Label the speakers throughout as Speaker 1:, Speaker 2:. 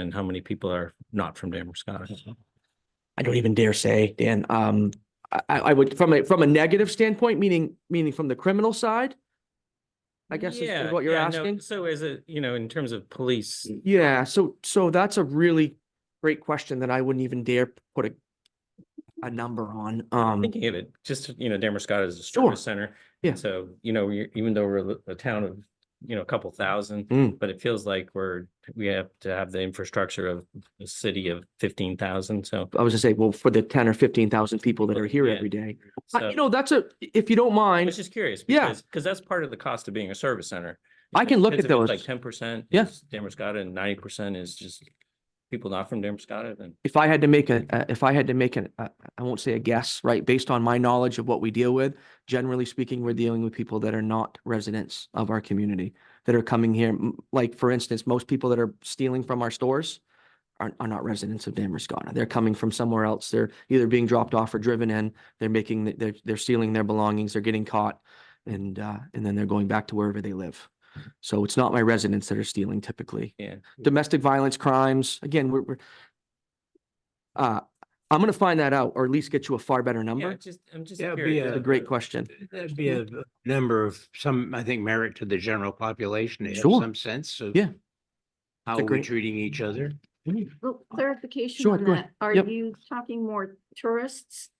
Speaker 1: and how many people are not from Damascus?
Speaker 2: Mm-hmm. I don't even dare say, Dan. Um, I, I I would, from a, from a negative standpoint, meaning, meaning from the criminal side? I guess is-
Speaker 1: Yeah,
Speaker 2: is what you're
Speaker 1: yeah, no,
Speaker 2: asking?
Speaker 1: So is it, you know, in terms of police,
Speaker 2: Yeah, so, so that's a really great question that I wouldn't even dare put a, a number on. Um,
Speaker 1: thinking of it, just, you know, Damascus is a
Speaker 2: Sure.
Speaker 1: service center.
Speaker 2: Yeah.
Speaker 1: So, you know, we- even though we're a town of, you know, a couple thousand,
Speaker 2: Mm.
Speaker 1: but it feels like we're, we have to have the infrastructure of a city of fifteen thousand, so.
Speaker 2: I was gonna say, well, for the ten or fifteen thousand people that are here
Speaker 1: Yeah.
Speaker 2: every day.
Speaker 1: so-
Speaker 2: Uh, You know, that's a, if you don't
Speaker 1: I
Speaker 2: mind,
Speaker 1: was just curious.
Speaker 2: Yeah.
Speaker 1: Because 'cause that's part of the cost of being a service center.
Speaker 2: I can look
Speaker 1: Because
Speaker 2: at
Speaker 1: if it's Like
Speaker 2: those.
Speaker 1: ten percent.
Speaker 2: Yeah.
Speaker 1: Damascus and ninety percent is just people not from Damascus and.
Speaker 2: if I had to make a, a- if I had to make an, a- I won't say a guess, right? Based on my knowledge of what we deal with, generally speaking, we're dealing with people that are not residents of our community that are coming here. M- Like, for instance, most people that are stealing from our stores are, are not residents of Damascus. They're coming from somewhere else. They're either being dropped off or driven in. They're making, the- they're, they're stealing their belongings. They're getting caught. And, uh, and then they're going back to wherever they live. So it's not my residents that are stealing typically.
Speaker 1: Yeah.
Speaker 2: Domestic violence crimes, again, we're, we're, uh, I'm gonna find that out or at least get you a far better
Speaker 1: Yeah,
Speaker 2: number.
Speaker 1: just, I'm just
Speaker 3: Yeah, it'd be
Speaker 1: curious.
Speaker 2: That's
Speaker 3: yeah.
Speaker 2: a great question.
Speaker 3: That'd be a a number of some, I think, merit to the general population, to have
Speaker 2: Sure.
Speaker 3: some sense of.
Speaker 2: Yeah.
Speaker 3: How
Speaker 2: a
Speaker 3: we're
Speaker 2: great- Mm-hmm.
Speaker 3: treating each other.
Speaker 4: Well, Oh, Clarification
Speaker 2: Sure,
Speaker 4: on
Speaker 2: go ahead.
Speaker 4: that. Are
Speaker 2: Yep.
Speaker 4: you talking more tourists?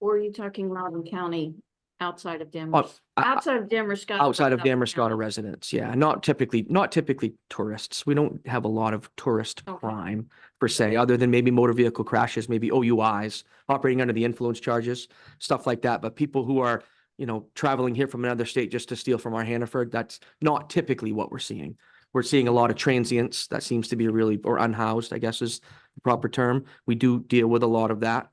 Speaker 4: Or are you talking Loudon County outside of Denver?
Speaker 2: Oh, I- I-
Speaker 4: Outside of Denver, Scott.
Speaker 2: Outside of Damascus residents, yeah, not typically, not typically tourists. We don't have a lot of tourist
Speaker 4: Okay.
Speaker 2: crime per se, other than maybe motor vehicle crashes, maybe OUIs, operating under the influence charges, stuff like that. But people who are, you know, traveling here from another state just to steal from our Hannaford, that's not typically what we're seeing. We're seeing a lot of transients. That seems to be a really, or unhoused, I guess is the proper term. We do deal with a lot of that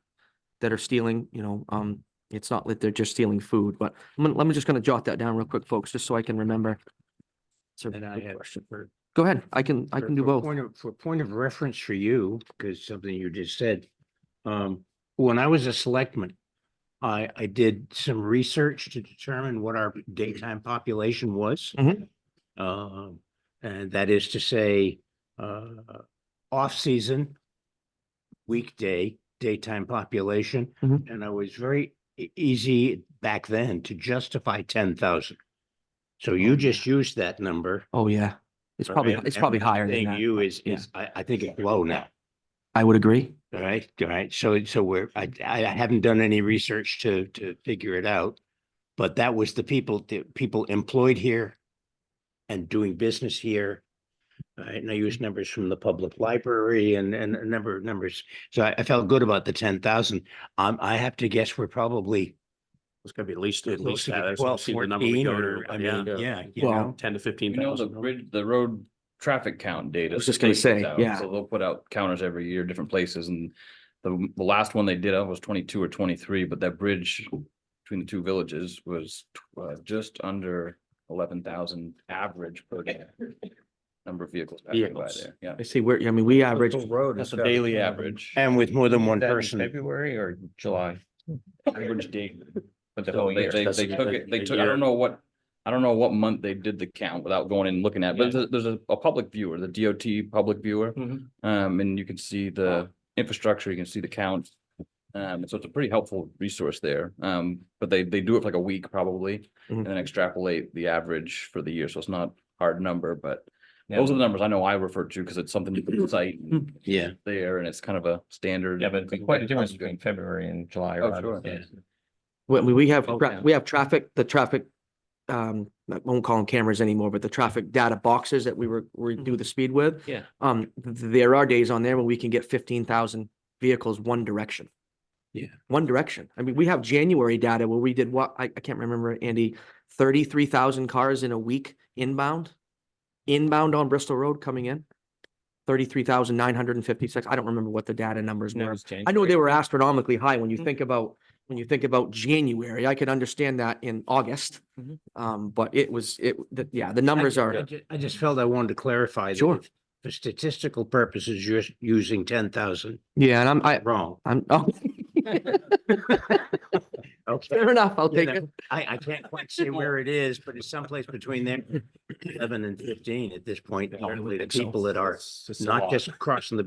Speaker 2: that are stealing, you know, um, it's not that they're just stealing food, but I'm, gonna- I'm just gonna jot that down real quick, folks, just so I can remember. It's a
Speaker 3: And I
Speaker 2: good
Speaker 3: have.
Speaker 2: question.
Speaker 3: for-
Speaker 2: Go ahead. I can, I
Speaker 3: for-
Speaker 2: can do
Speaker 3: for
Speaker 2: both.
Speaker 3: Point of, for point of reference for you, because something you just said. Um, when I was a selectman, I, I did some research to determine what our daytime population was.
Speaker 2: Mhm.
Speaker 3: Um, and that is to say, uh, off-season, weekday, daytime population.
Speaker 2: Mhm.
Speaker 3: And I was very e- easy back then to justify ten thousand. So you just used that number.
Speaker 2: Oh, yeah. It's probably,
Speaker 3: Right?
Speaker 2: it's probably
Speaker 3: And what I'm
Speaker 2: higher than
Speaker 3: saying
Speaker 2: that.
Speaker 3: You is,
Speaker 2: yeah.
Speaker 3: is, I, I think it's low now,
Speaker 2: I would agree.
Speaker 3: all right, all right, so, so we're, I, I haven't done any research to, to figure it out. But that was the people, the people employed here and doing business here. All right, and I used numbers from the public library and, and a number of numbers, so I, I felt good about the ten thousand. Um, I have to guess we're probably.
Speaker 5: It's gonna be at least, at
Speaker 3: close
Speaker 5: least
Speaker 3: to
Speaker 5: that. That's
Speaker 3: Twelve,
Speaker 5: obviously the number we
Speaker 3: fourteen,
Speaker 5: go to,
Speaker 3: or, I
Speaker 5: yeah,
Speaker 3: mean, yeah, you
Speaker 2: Well,
Speaker 3: know.
Speaker 5: Ten to fifteen
Speaker 6: You know, the
Speaker 5: thousand.
Speaker 6: bridge, the road traffic count
Speaker 2: I
Speaker 6: data.
Speaker 2: was
Speaker 6: that
Speaker 2: just gonna
Speaker 6: they
Speaker 2: say,
Speaker 6: put out.
Speaker 2: yeah.
Speaker 6: So they'll put out counters every year, different places, and the, the last one they did, I was twenty-two or twenty-three, but that bridge between the two villages was tw- uh, just under eleven thousand average per day. Number of vehicles passing by
Speaker 5: Vehicles.
Speaker 6: there, yeah.
Speaker 2: I see where, I mean, we average,
Speaker 1: Road.
Speaker 6: That's a daily average.
Speaker 3: And with more than one
Speaker 6: That in
Speaker 3: person,
Speaker 6: February or July? Average date. But the
Speaker 5: So
Speaker 6: whole, they,
Speaker 5: year,
Speaker 6: they,
Speaker 5: that's
Speaker 6: they
Speaker 5: a-
Speaker 6: took it, they
Speaker 5: a
Speaker 6: took, I
Speaker 5: year.
Speaker 6: don't know what, I don't know what month they did the count without going and looking at, but there's, a- there's a, a public viewer, the DOT public viewer.
Speaker 5: Mhm.
Speaker 6: Um, and you can see the infrastructure, you can see the count. Um, so it's a pretty helpful resource there. Um, but they, they do it for like a week probably and
Speaker 2: Mhm.
Speaker 6: then extrapolate the average for the year. So it's not hard number, but those are the numbers I know I refer to because it's something you can cite and
Speaker 3: yeah,
Speaker 6: there and it's kind of a standard.
Speaker 1: Yeah, but it'd be quite a difference between February and July.
Speaker 6: Oh,
Speaker 1: or
Speaker 6: sure.
Speaker 1: August, yeah.
Speaker 2: we, we- we have,
Speaker 1: Oh,
Speaker 2: tra-
Speaker 1: yeah.
Speaker 2: we have traffic, the traffic, um, I won't call them cameras anymore, but the traffic data boxes that we were, we do the speed with.
Speaker 1: Mm-hmm. Yeah.
Speaker 2: Um, th- there are days on there when we can get fifteen thousand vehicles one direction.
Speaker 3: Yeah.
Speaker 2: One direction. I mean, we have January data where we did what, I, I can't remember, Andy, thirty-three thousand cars in a week inbound? Inbound on Bristol Road coming in? Thirty-three thousand nine hundred and fifty-six. I don't remember what the data numbers
Speaker 1: No,
Speaker 2: were.
Speaker 1: it's January.
Speaker 2: I know they were astronomically high when you
Speaker 1: Mhm.
Speaker 3: Mm-hmm.
Speaker 2: think about, when you think about January, I could understand that in August.
Speaker 3: Mm-hmm.
Speaker 1: Mhm.
Speaker 2: Um, but it was, it, the- yeah, the
Speaker 3: I
Speaker 2: numbers
Speaker 3: ju- I
Speaker 2: are,
Speaker 3: ju- I just felt I wanted to clarify. that
Speaker 2: Sure.
Speaker 3: if For statistical purposes, you're s- using ten thousand
Speaker 2: yeah, and I'm, I,
Speaker 3: wrong.
Speaker 2: I'm, oh,
Speaker 3: Okay.
Speaker 2: Fair enough, I'll
Speaker 3: Yeah,
Speaker 2: take
Speaker 3: that-
Speaker 2: it.
Speaker 3: I, I can't quite say where it is, but it's someplace between there, eleven and fifteen at this point.
Speaker 5: I would
Speaker 3: Hopefully the
Speaker 5: think so.
Speaker 3: people that are
Speaker 5: It's- it's a
Speaker 3: not
Speaker 5: lot.
Speaker 3: just crossing the